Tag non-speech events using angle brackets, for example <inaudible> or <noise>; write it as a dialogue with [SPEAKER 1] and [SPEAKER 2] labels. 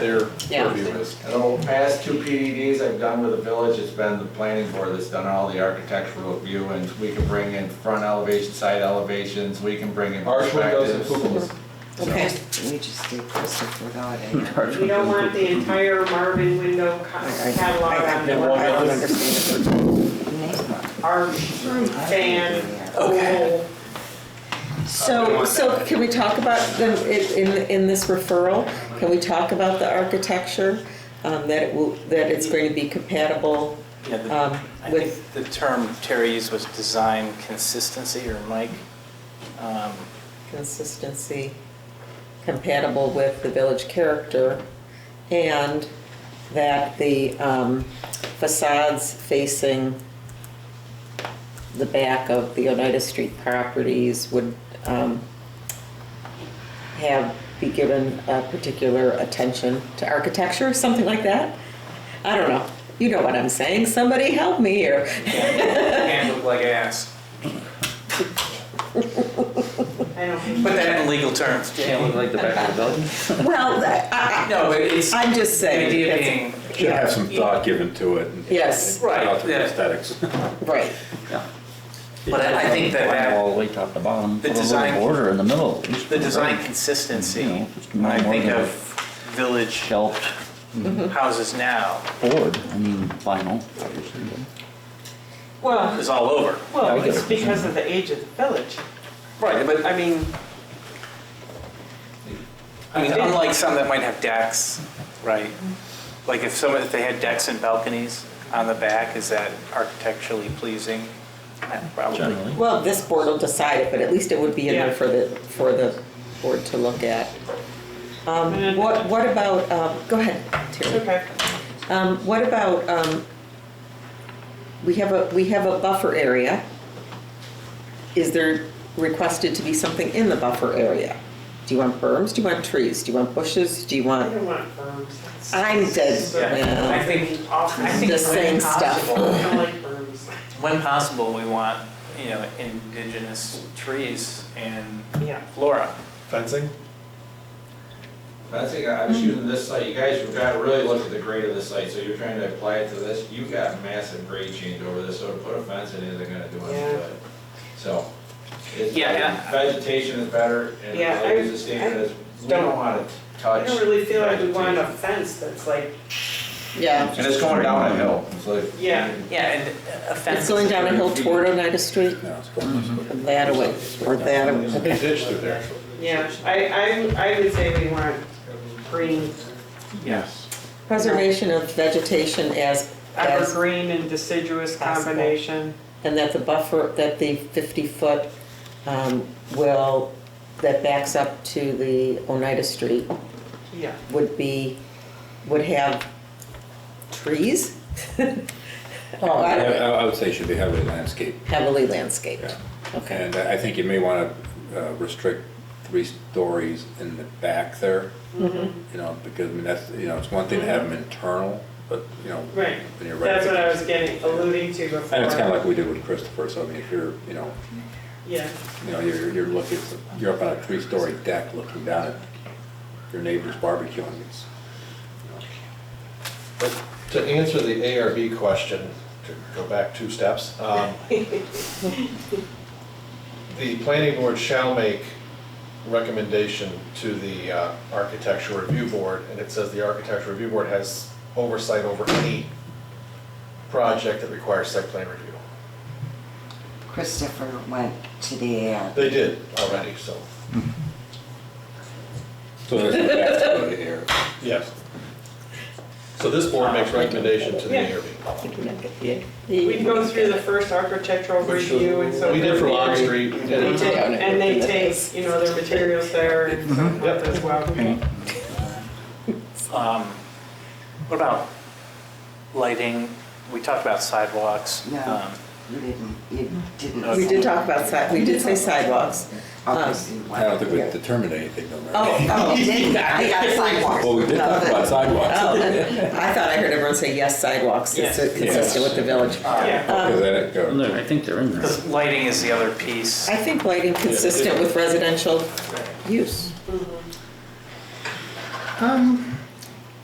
[SPEAKER 1] their
[SPEAKER 2] Yeah.
[SPEAKER 1] purview is.
[SPEAKER 3] And the past two PDDs I've done with the village, it's been the planning board that's done all the architectural review, and we can bring in front elevation, side elevations, we can bring in
[SPEAKER 1] Arch windows and
[SPEAKER 3] perspectives.
[SPEAKER 1] cupolas.
[SPEAKER 4] Okay.
[SPEAKER 5] We just did Christopher Dodd and.
[SPEAKER 6] We don't want the entire Marvin window co-
[SPEAKER 5] I- I-
[SPEAKER 6] catalog
[SPEAKER 5] I- I've
[SPEAKER 6] on the
[SPEAKER 5] never- I don't
[SPEAKER 6] wall.
[SPEAKER 5] understand the name.
[SPEAKER 6] Arch, fan, oval.
[SPEAKER 4] So, so can we talk about the, in, in- in this referral, can we talk about the architecture? Um, that it will, that it's going to be compatible,
[SPEAKER 7] Yeah, the-
[SPEAKER 4] um,
[SPEAKER 7] I
[SPEAKER 4] with,
[SPEAKER 7] think the term Terry used was design consistency, or Mike. Um,
[SPEAKER 4] consistency, compatible with the village character, and that the um, facades facing the back of the Oneida Street properties would um, have, be given a particular attention to architecture, something like that? I don't know. You know what I'm saying. Somebody help me here. <laughs>
[SPEAKER 7] And look like ass.
[SPEAKER 6] I don't think.
[SPEAKER 7] Put that in legal terms,
[SPEAKER 8] Can't look
[SPEAKER 7] Jay.
[SPEAKER 8] like the back of the building.
[SPEAKER 4] Well, I-
[SPEAKER 7] No, but it's,
[SPEAKER 4] I- I'm just
[SPEAKER 7] the
[SPEAKER 4] saying.
[SPEAKER 7] idea
[SPEAKER 4] that's-
[SPEAKER 7] being,
[SPEAKER 9] Should have some thought given to it. and-
[SPEAKER 4] Yes.
[SPEAKER 9] and Not through
[SPEAKER 7] Right, yeah.
[SPEAKER 9] aesthetics.
[SPEAKER 4] Right.
[SPEAKER 7] but I I think that that,
[SPEAKER 8] All the way top to bottom,
[SPEAKER 7] The
[SPEAKER 8] put a little
[SPEAKER 7] design-
[SPEAKER 8] border in the middle. at least
[SPEAKER 7] the
[SPEAKER 8] for
[SPEAKER 7] design
[SPEAKER 8] road.
[SPEAKER 7] consistency,
[SPEAKER 8] You know, just
[SPEAKER 7] when I
[SPEAKER 8] more
[SPEAKER 7] think
[SPEAKER 8] than a
[SPEAKER 7] of village Mm-hmm.
[SPEAKER 8] Shelved
[SPEAKER 7] houses now,
[SPEAKER 8] board, I mean vinyl, obviously.
[SPEAKER 6] Well,
[SPEAKER 7] is all over.
[SPEAKER 8] Yeah, we
[SPEAKER 6] well,
[SPEAKER 8] get
[SPEAKER 6] it's
[SPEAKER 8] it.
[SPEAKER 6] because of the age of the village.
[SPEAKER 7] Right, but
[SPEAKER 6] I mean,
[SPEAKER 7] I mean, unlike some that might have decks, right? Like if someone, if they had decks and balconies on the back, is that architecturally pleasing? Eh, Probably.
[SPEAKER 8] Generally.
[SPEAKER 4] Well, this board will decide it, but at least it would be in there
[SPEAKER 6] Yeah.
[SPEAKER 4] for the, for the board to look at. Um, What, what about, um, go ahead,
[SPEAKER 6] it's
[SPEAKER 4] Terry.
[SPEAKER 6] okay.
[SPEAKER 4] Um, What about, um, we have a, we have a buffer area. Is there requested to be something in the buffer area? Do you want berms? Do you want trees? Do you want bushes? Do you
[SPEAKER 6] I
[SPEAKER 4] want,
[SPEAKER 6] don't want berms.
[SPEAKER 4] I'm dead,
[SPEAKER 7] Yeah, I
[SPEAKER 4] yeah.
[SPEAKER 7] think,
[SPEAKER 6] Awful.
[SPEAKER 7] I think
[SPEAKER 4] The same
[SPEAKER 7] when
[SPEAKER 4] stuff.
[SPEAKER 7] possible,
[SPEAKER 6] I don't like berms.
[SPEAKER 7] when possible, we want, you know, indigenous trees and
[SPEAKER 6] Yeah.
[SPEAKER 7] flora.
[SPEAKER 1] Fencing?
[SPEAKER 3] I think I was using this site, you guys, you've got to really look at the grade of the site, so you're trying to apply it to this, you've got massive grade change over this, so to put a fence in isn't gonna do anything
[SPEAKER 6] Yeah.
[SPEAKER 3] good. So, it's,
[SPEAKER 7] Yeah, yeah.
[SPEAKER 3] vegetation is better, and
[SPEAKER 6] Yeah,
[SPEAKER 3] like
[SPEAKER 6] I-
[SPEAKER 3] as a standard, is we don't
[SPEAKER 6] don't-
[SPEAKER 3] wanna
[SPEAKER 6] I
[SPEAKER 3] touch.
[SPEAKER 6] don't really feel like we want a
[SPEAKER 3] vegetation.
[SPEAKER 6] fence that's like,
[SPEAKER 4] yeah.
[SPEAKER 3] And it's going down a hill, it's like.
[SPEAKER 6] Yeah.
[SPEAKER 7] Yeah, and a fence.
[SPEAKER 4] It's going down a hill toward Oneida Street,
[SPEAKER 9] No, it's going-
[SPEAKER 4] that way, or that way.
[SPEAKER 1] There's a ditch through there.
[SPEAKER 6] yeah, I, I, I would say we want green,
[SPEAKER 7] Yes.
[SPEAKER 4] Preservation of vegetation as, as,
[SPEAKER 6] evergreen and deciduous
[SPEAKER 4] Possible.
[SPEAKER 6] combination.
[SPEAKER 4] and that the buffer, that the 50-foot um, will, that backs up to the Oneida Street
[SPEAKER 6] Yeah,
[SPEAKER 4] would be, would have trees? <laughs>
[SPEAKER 9] I
[SPEAKER 4] Oh,
[SPEAKER 9] I would say it should be heavily landscaped.
[SPEAKER 4] Heavily landscaped,
[SPEAKER 9] Yeah.
[SPEAKER 4] okay.
[SPEAKER 9] And I I think you may want to restrict three stories in the back there. You know, because, I mean, that's, you know, it's one thing to have them internal, but, you know.
[SPEAKER 6] right.
[SPEAKER 9] when you're right-
[SPEAKER 6] That's what I was getting, alluding to before.
[SPEAKER 9] And it's kind of like we did with Christopher, so I mean, if you're, you know,
[SPEAKER 6] Yeah,
[SPEAKER 9] you know, you're, you're looking, you're up on a three-story deck looking down at your neighbor's barbecue and it's, you know,
[SPEAKER 1] But to answer the ARB question, to go back two steps, um, the planning board shall make recommendation to the uh, architecture review board, and it says the architecture review board has oversight over any project that requires site plan review.
[SPEAKER 5] Christopher went to the ARB.
[SPEAKER 1] They did already, so,
[SPEAKER 9] So that's the best go to air.
[SPEAKER 1] yes. So this board makes recommendation to the ARB.
[SPEAKER 6] we can go through the first architectural review and so.
[SPEAKER 1] We did for Long
[SPEAKER 6] forth.
[SPEAKER 1] Street, we
[SPEAKER 6] They
[SPEAKER 1] did
[SPEAKER 6] take- And they take, you know, their materials there and so forth as well.
[SPEAKER 7] Um, What about lighting? We talked about sidewalks.
[SPEAKER 5] No,
[SPEAKER 7] um,
[SPEAKER 5] you didn't, you didn't.
[SPEAKER 4] We
[SPEAKER 5] say-
[SPEAKER 4] did talk about side, we did say sidewalks.
[SPEAKER 5] Obviously, you
[SPEAKER 9] I don't
[SPEAKER 5] went.
[SPEAKER 9] think we determined anything though, right?
[SPEAKER 4] Oh,
[SPEAKER 5] Oh,
[SPEAKER 4] oh,
[SPEAKER 5] you didn't, I got sidewalks.
[SPEAKER 9] Well, we did talk about sidewalks.
[SPEAKER 4] Oh, I thought I heard everyone say yes sidewalks, it's consistent with the village.
[SPEAKER 6] Yeah,
[SPEAKER 9] Because then it
[SPEAKER 8] And
[SPEAKER 9] goes,
[SPEAKER 8] there- I think they're in there.
[SPEAKER 7] Because lighting is the other piece.
[SPEAKER 4] I think lighting consistent with residential use.
[SPEAKER 8] Um,